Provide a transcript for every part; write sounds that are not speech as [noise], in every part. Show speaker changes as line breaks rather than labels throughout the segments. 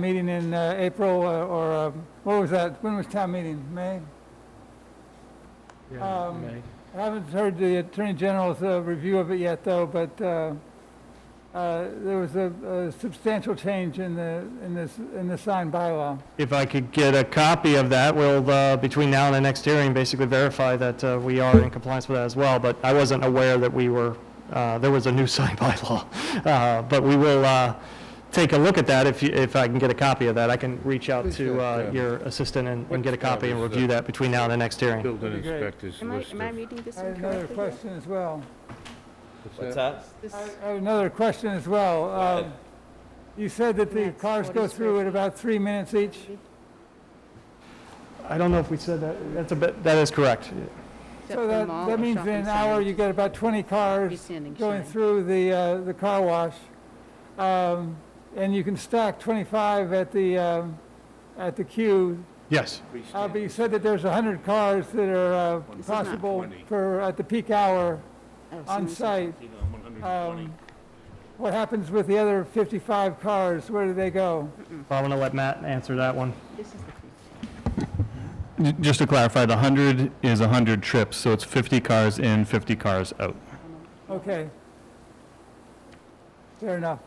meeting in uh, April, uh, or, uh, what was that? When was town meeting? May? Um,
May.
I haven't heard the Attorney General's uh, review of it yet, though, but uh, uh, there was a a substantial change in the, in this, in the sign bylaw.
If I could get a copy of that, we'll, uh, between now and the next hearing, basically verify that uh, we are in compliance with that as well, but I wasn't aware that we were, uh, there was a new [laughs] sign bylaw. Uh, But we will uh, take a look at that if, you- if I can get a copy of that. I can reach out to uh, your assistant and and get a copy and review that between now and the next hearing.
Building
That'd be great.
inspector's
Am I,
list
am I
of...
reading this
I had another
incorrectly? here?
question as well.
What's that?
This-
I I have another question as well. Um, You said that the
That's
cars go
40 square
through at about three minutes each?
I don't know if we said that, that's a bit, that is correct.
Except
So
for
that,
mall or
that means in
shopping
an hour,
centers.
you get about 20 cars
Freestanding
going
sign.
through the, uh, the car wash. Um, And you can stack 25 at the, um, at the queue.
Yes.
Uh, But you said that there's 100 cars that are uh,
This is not
possible
20.
for, at the peak hour,
Oh, so
on
this is-
site. Um, What happens with the other 55 cars? Where do they go?
I'm going to let Matt answer that one.
This is the freestanding.
J- Just to clarify, the 100 is 100 trips, so it's 50 cars in, 50 cars out.
Okay. Fair enough.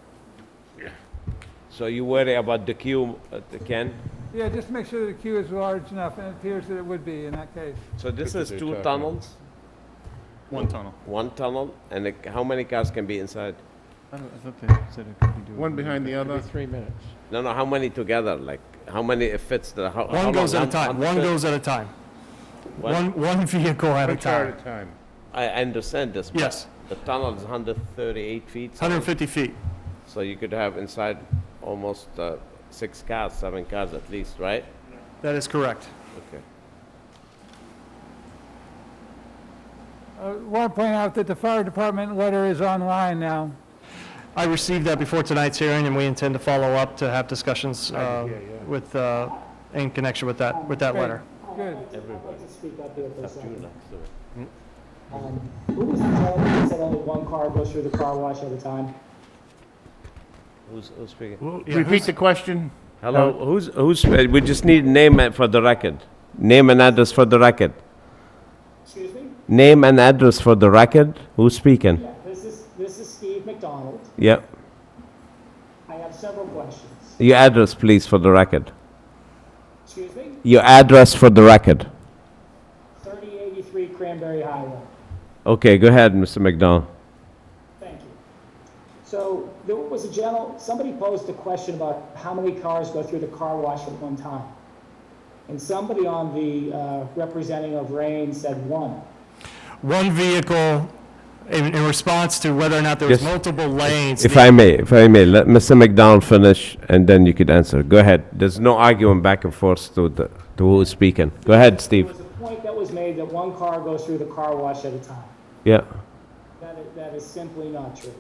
So you worry about the queue, uh, Ken?
Yeah, just make sure the queue is large enough, and it appears that it would be in that case.
So this is
they're
two
talking.
tunnels,
One tunnel.
one tunnel, and it- how many cars can be inside?
I don't- I thought they said it could be doable.
One behind the other.
No, no, how many together, like, how many it fits the, how? how
One goes at
long-
a time,
how-
one goes at a time.
What?
One, one vehicle at a
One car
time.
at a time.
I I understand this. but
Yes.
The tunnel is 138 feet. so-
150 feet.
So you could have inside almost uh, six cars, seven cars at least, right?
That is correct.
Okay.
I want to Uh, point out that the fire department letter is online now.
I received that before tonight's hearing, and we intend to follow up to have discussions uh,
yeah, yeah.
with, uh, in connection with that, with that
Great.
letter.
Good.
Everybody.
to speak up here for a second.
next to it.
Um, Who was the gentleman that said only one car goes through the car wash at a time?
Who's, who's speaking?
Repeat the question.
Hello, who's, who's, uh, we just need name and- for the record. Name and address for the record.
Excuse me?
Name and address for the record. Who's speaking?
Yeah, this is, this is Steve McDonald.
Yeah.
I have several questions.
Your address, please, for the record.
Excuse me?
Your address for the record.
3083 Cranberry Highway.
Okay, go ahead, Mr. McDonald.
Thank you. So there was a gentle, somebody posed a question about how many cars go through the car wash at one time. And somebody on the uh, representing of Rain said one.
One vehicle, in, in response to whether or not there was
Yes.
multiple lanes.
If
the-
I may, if I may, let Mr. McDonald finish and then you could answer. Go ahead. There's no arguing back and forth to, the, to who's speaking. Go ahead,
There
Steve.
was a point that was made that one car goes through the car wash at a time.
Yeah.
That is, that is simply not true.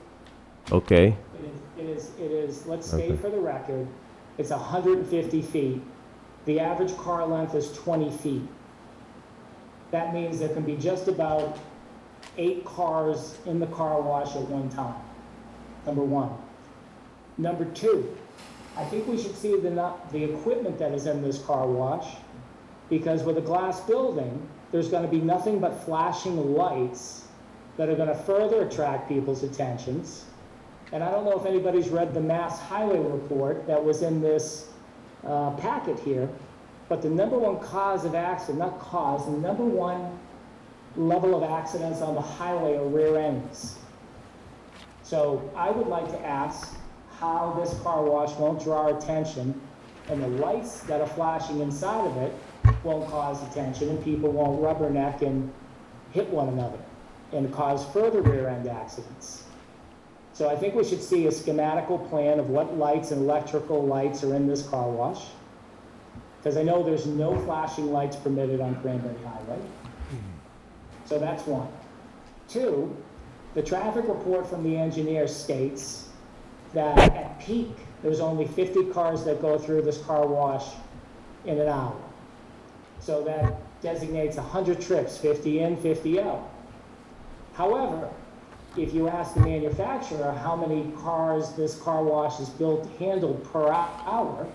Okay.
It is- It is, it is, let's state for the record, it's 150 feet. The average car length is 20 feet. That means there can be just about eight cars in the car wash at one time, number one. Number two, I think we should see the, nu- the equipment that is in this car wash, because with a glass building, there's gonna be nothing but flashing lights that are gonna further attract people's attentions. And I don't know if anybody's read the Mass Highway Report that was in this uh, packet here, but the number one cause of accident, not cause, the number one level of accidents on the highway are rear ends. So I would like to ask how this car wash won't draw our attention and the lights that are flashing inside of it won't cause attention and people won't rubberneck and hit one another and cause further rear end accidents. So I think we should see a schematical plan of what lights and electrical lights are in this car wash. Because I know there's no flashing lights permitted on Cranberry Highway. So that's one. Two, the traffic report from the engineer states that at peak, there's only 50 cars that go through this car wash in an hour. So that designates 100 trips, 50 in, 50 out. However, if you ask the manufacturer how many cars this car wash is built, handled per hou- hour,